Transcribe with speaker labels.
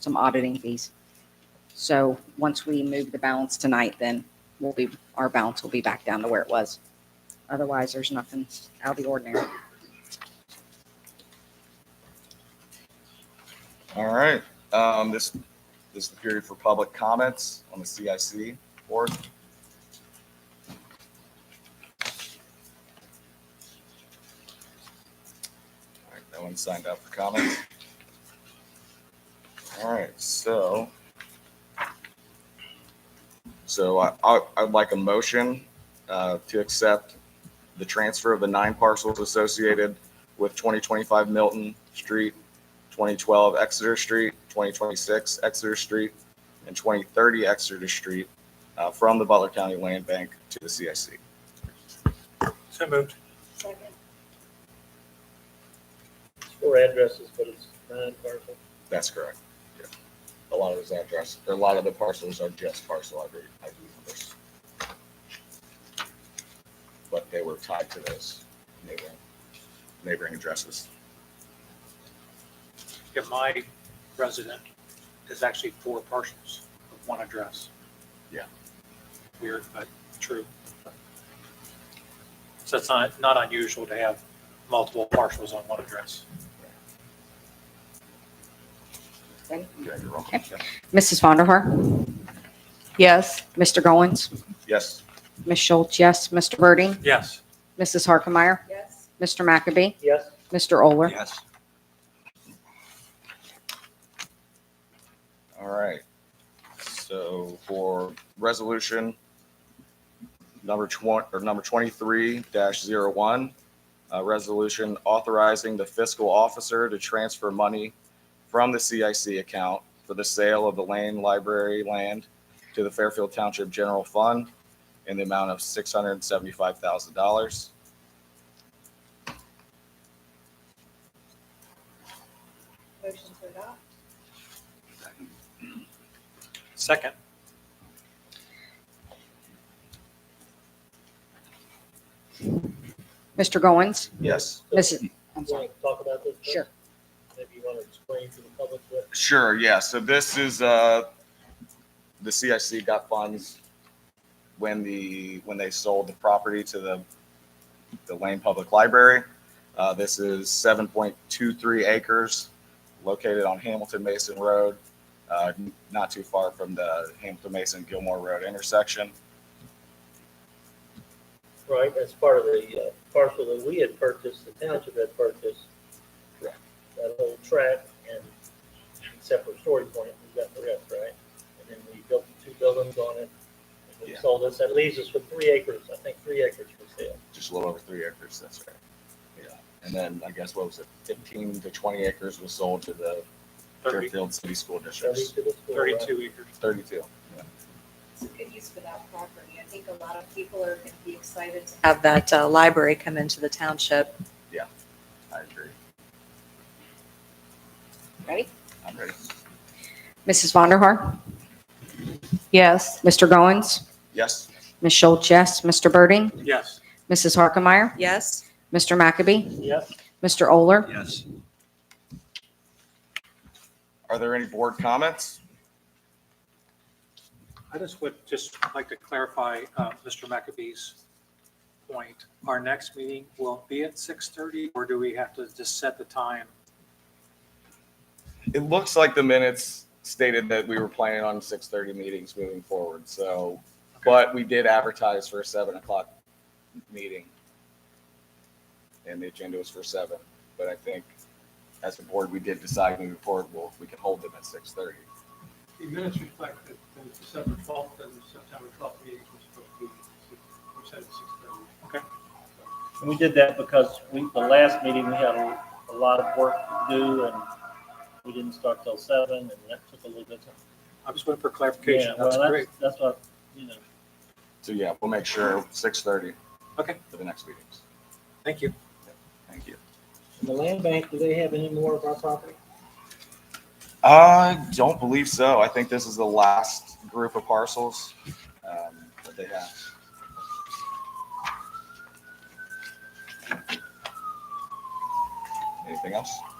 Speaker 1: some auditing fees. So once we move the balance tonight, then we'll be, our balance will be back down to where it was. Otherwise, there's nothing out of the ordinary.
Speaker 2: All right, um, this, this is the period for public comments on the CIC board. All right, no one signed up for comments. All right, so. So I, I, I'd like a motion, uh, to accept the transfer of the nine parcels associated with twenty twenty-five Milton Street 2012 Exeter Street, 2026 Exeter Street, and 2030 Exeter Street uh, from the Butler County Land Bank to the CIC.
Speaker 3: So moved.
Speaker 4: Second.
Speaker 5: Four addresses, but it's nine parcels.
Speaker 2: That's correct. Yeah. A lot of those addresses, a lot of the parcels are just parcel ID ID numbers. But they were tied to those neighboring, neighboring addresses.
Speaker 3: Yeah, my resident is actually four parcels of one address.
Speaker 2: Yeah.
Speaker 3: Weird, but true. So it's not, not unusual to have multiple parcels on one address.
Speaker 1: Okay.
Speaker 2: Yeah, you're wrong.
Speaker 1: Mrs. Vonderhaar?
Speaker 4: Yes.
Speaker 1: Mr. Goins?
Speaker 2: Yes,
Speaker 1: Ms. Schultz, yes. Mr. Birding?
Speaker 3: Yes.
Speaker 1: Mrs. Harkemeyer?
Speaker 4: Yes.
Speaker 1: Mr. McAbey?
Speaker 5: Yes,
Speaker 1: Mr. Oler?
Speaker 3: Yes.
Speaker 2: all right. So for resolution number 20, or number 23-01, a resolution authorizing the fiscal officer to transfer money from the CIC account for the sale of the Lane Library land to the Fairfield Township General Fund in the amount of $675,000.
Speaker 4: Motion to adopt?
Speaker 3: Second.
Speaker 1: Mr. Goins?
Speaker 2: Yes.
Speaker 1: Mrs. I'm
Speaker 5: you
Speaker 1: sorry.
Speaker 5: want to talk about this? first?
Speaker 1: Sure.
Speaker 5: Maybe you want to explain to the public what,
Speaker 2: Sure, yeah. So this is, uh, the CIC got funds when the, when they sold the property to the, the Lane Public Library. Uh, this is seven point two three acres located on Hamilton Mason Road, uh, not too far from the Hamilton Mason Gilmore Road intersection.
Speaker 5: right, that's part of the uh, parcel that we had purchased, the township had purchased.
Speaker 2: Correct.
Speaker 5: That whole tract and except for Story Point, we got the rest, right? And then we built the two buildings on it. and We
Speaker 2: Yeah.
Speaker 5: sold this, that leaves us with three acres, I think three acres for sale.
Speaker 2: just a little over three acres, that's right. Yeah, and then I guess what was it, fifteen to twenty acres was sold to the
Speaker 3: Thirty-
Speaker 2: Fairfield City School
Speaker 5: Thirty
Speaker 2: Districts,
Speaker 5: to the school, right?
Speaker 3: Thirty-two acres.
Speaker 2: thirty-two. yeah.
Speaker 4: It's a good use for that property. I think a lot of people are going to be excited to have that uh, library come into the township.
Speaker 2: I agree.
Speaker 1: Ready?
Speaker 2: I'm ready.
Speaker 1: Mrs. Vonderhaar?
Speaker 4: Yes.
Speaker 1: Mr. Goins?
Speaker 2: Yes.
Speaker 1: Ms. Schultz, yes. Mr. Birding?
Speaker 3: Yes.
Speaker 1: Mrs. Harkemeyer?
Speaker 4: Yes.
Speaker 1: Mr. McAbey?
Speaker 5: Yes,
Speaker 1: Mr. Oler?
Speaker 3: Yes.
Speaker 2: Are there any board comments?
Speaker 3: I just would just like to clarify uh, Mr. McAbee's point. Our next meeting will be at 6:30, or do we have to just set the time?
Speaker 2: It looks like the minutes stated that we were planning on six thirty meetings moving forward, so, but we did advertise for a seven o'clock meeting. And the agenda was for seven, but I think as a board, we did decide moving forward, well, we can hold them at six thirty.
Speaker 6: The minutes reflect that the December 12th and the September 12th meetings were supposed to be, were set at 6:30.
Speaker 5: and we did that because we, the last meeting, we had a, a lot of work to do and we didn't start till seven and that took a little bit. of-
Speaker 3: I just went for
Speaker 5: Yeah,
Speaker 3: clarification.
Speaker 5: well,
Speaker 3: That's great.
Speaker 5: that's, that's what, you know,
Speaker 2: So yeah, we'll make sure six thirty.
Speaker 3: Okay.
Speaker 2: For the next meetings.
Speaker 3: Thank you.
Speaker 2: Thank you.
Speaker 5: And the land bank, do they have any more of our property?
Speaker 2: I don't believe so. I think this is the last group of parcels um, that they have. Anything else? Uh,